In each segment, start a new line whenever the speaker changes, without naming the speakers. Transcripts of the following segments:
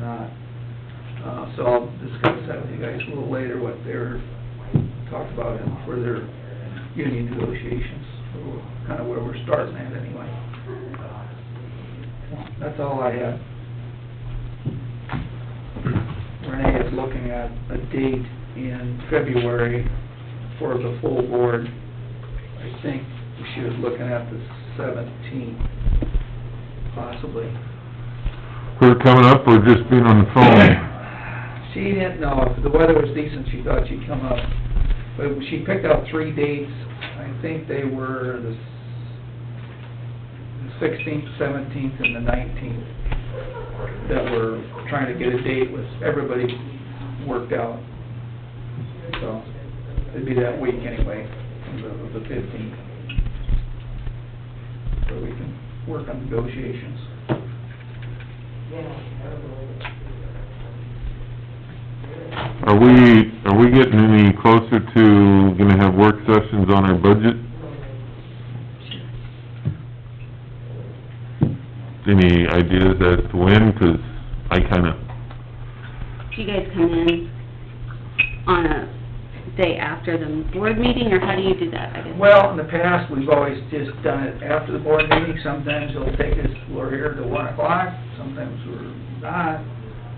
Uh, So I'll discuss that with you guys a little later, what they're, talked about in further union negotiations, kind of where we're starting at anyway. Uh, That's all I have. Renee is looking at a date in February for the full board. I think she was looking at the seventeenth, possibly.
Her coming up or just being on the phone?
She didn't know, if the weather was decent, she thought she'd come up, but she picked out three dates, I think they were the sixteenth, seventeenth, and the nineteenth, that were trying to get a date with everybody worked out. So, it'd be that week anyway, the fifteenth. So we can work on negotiations.
Are we, are we getting any closer to gonna have work sessions on our budget? Any ideas as to when? 'Cause I kinda,
Do you guys come in on a day after the board meeting, or how do you do that, I guess?
Well, in the past, we've always just done it after the board meeting, sometimes it'll take us, we're here till one o'clock, sometimes we're not,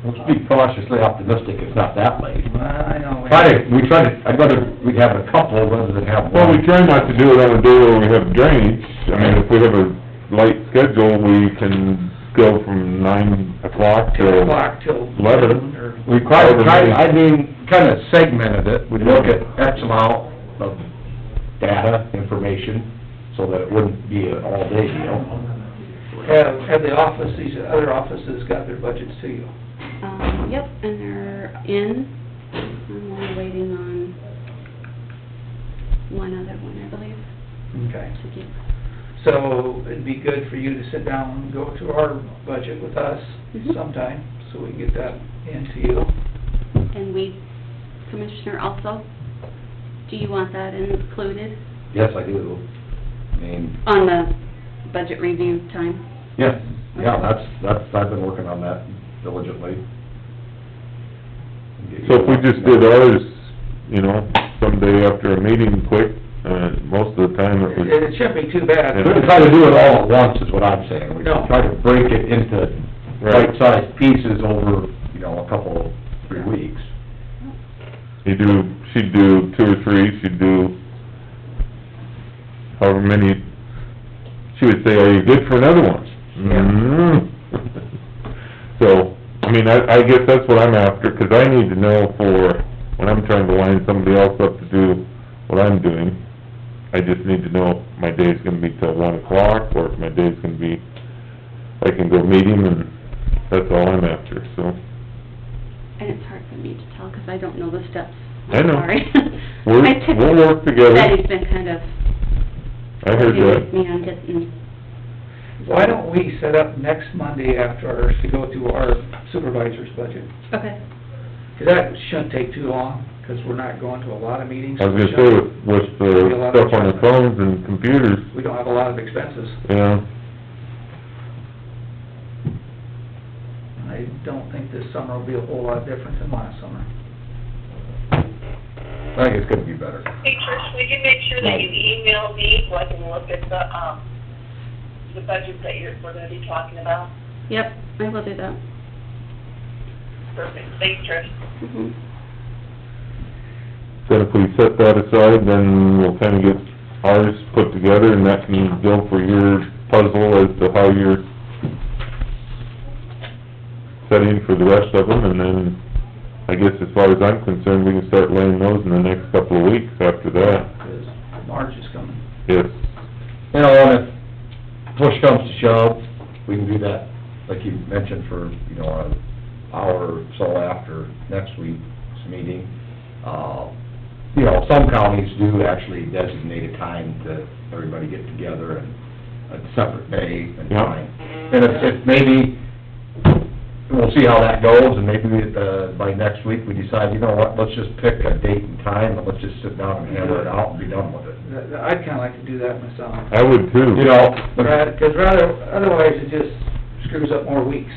Let's be cautiously optimistic, it's not that late.
Well, I know. we-
Try to, we try to, I'd rather we have a couple rather than have
well, we
one.
try not to do it on a day where we have drainage. I mean, if we have a light schedule, we can go from nine o'clock
Two
till
o'clock till. noon or-
eleven.
We try, try, I mean, kinda segmented it, we look at X amount of data, information, so that it wouldn't be an all-day deal.
Have, have the office, these other offices got their budgets to you?
Um, yep, and they're in, I'm only waiting on one other one, I believe,
Okay.
to get,
So it'd be good for you to sit down and go through our budget with us
Mhm.
sometime, so we can get that into you.
and weed commissioner also. Do you want that included
Yes, I do. I mean,
on the budget review time?
yes, yeah, that's, that's, I've been working on that diligently.
So if we just did ours, you know, someday after a meeting quick, uh, most of the time it
It
was...
it shouldn't be too bad.
We don't try to do it all at once, is what I'm saying. We
No.
try to break it into
Right.
right-sized pieces over, you know, a couple, three weeks.
You do, she'd do two or three, she'd do however many, she would say, are you good for another one?
Yeah.
Mm. So, I mean, I, I guess that's what I'm after, 'cause I need to know for, when I'm trying to line somebody else up to do what I'm doing, I just need to know if my day's gonna be till one o'clock, or if my day's gonna be, I can go meet him, and that's all I'm after, so.
And it's hard for me to tell, 'cause I don't know the steps.
I know.
Sorry.
We're,
I took-
we'll work together,
Betty's been kind of
I heard
working
that.
with me on getting
Why don't we set up next Monday after ours to go through our supervisor's budget?
Okay.
Because that shouldn't take too long, because we're not going to a lot of meetings.
I was gonna say with, with the stuff on the phones and computers,
We don't have a lot of expenses.
you know,
I don't think this summer will be a whole lot different than last summer.
I think it's gonna be better.
Hey, Trish, would you make sure that you email me so I can look at the, um, the budget that you're, we're gonna be talking about?
Yep, I will do that.
Perfect, thanks, Trish.
Mhm.
then if we set that aside, then we'll kinda get ours put together and that can go for your puzzle as to how you're setting for the rest of them, and then, I guess as far as I'm concerned, we can start laying those in the next couple of weeks after that,
Because March is coming.
yes.
You know, and if push comes to shove, we can do that, like you mentioned, for, you know, an hour or so after next week's meeting. Uh, You know, some counties do actually designate a time to everybody get together and a separate day and
Yeah.
time. And if, if maybe, we'll see how that goes, and maybe, uh, by next week, we decide, you know what, let's just pick a date and time, and let's just sit down and hammer it out and be done with it.
That- that- I'd kinda like to do that myself.
I would too.
You know, but-
Because rather, otherwise it just screws up more weeks.